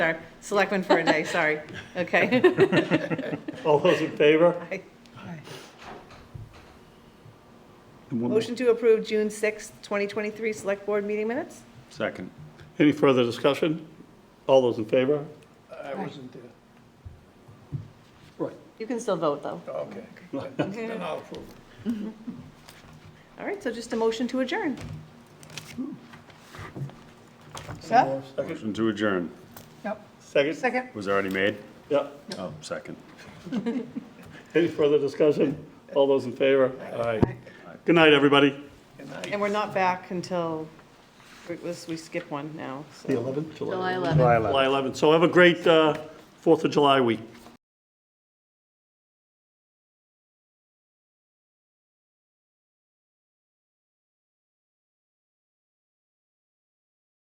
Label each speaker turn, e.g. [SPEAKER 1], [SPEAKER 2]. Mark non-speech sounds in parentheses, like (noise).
[SPEAKER 1] Sorry, selectmen for a day, sorry. Okay.
[SPEAKER 2] (laughs)
[SPEAKER 3] All those in favor?
[SPEAKER 4] And one more.
[SPEAKER 1] Motion to approve June 6th, 2023 Select Board meeting minutes?
[SPEAKER 4] Second.
[SPEAKER 3] Any further discussion? All those in favor?
[SPEAKER 2] I wasn't there.
[SPEAKER 3] Right.
[SPEAKER 5] You can still vote, though.
[SPEAKER 2] Oh, Okay, (laughs) then I'll approve.
[SPEAKER 1] (laughs) All right, so just a motion to adjourn.
[SPEAKER 2] Seth?
[SPEAKER 4] Motion to adjourn
[SPEAKER 2] Yep.
[SPEAKER 3] Second?
[SPEAKER 2] Second.
[SPEAKER 4] was already made?
[SPEAKER 3] Yeah.
[SPEAKER 4] Oh, second.
[SPEAKER 3] Any further discussion? All those in favor? Aye. Good night, everybody.
[SPEAKER 2] Good night.
[SPEAKER 1] And we're not back until, it was, we skip one now, so.
[SPEAKER 5] July 11th.
[SPEAKER 4] July 11th.
[SPEAKER 3] July 11th. So have a great uh, Fourth of July week.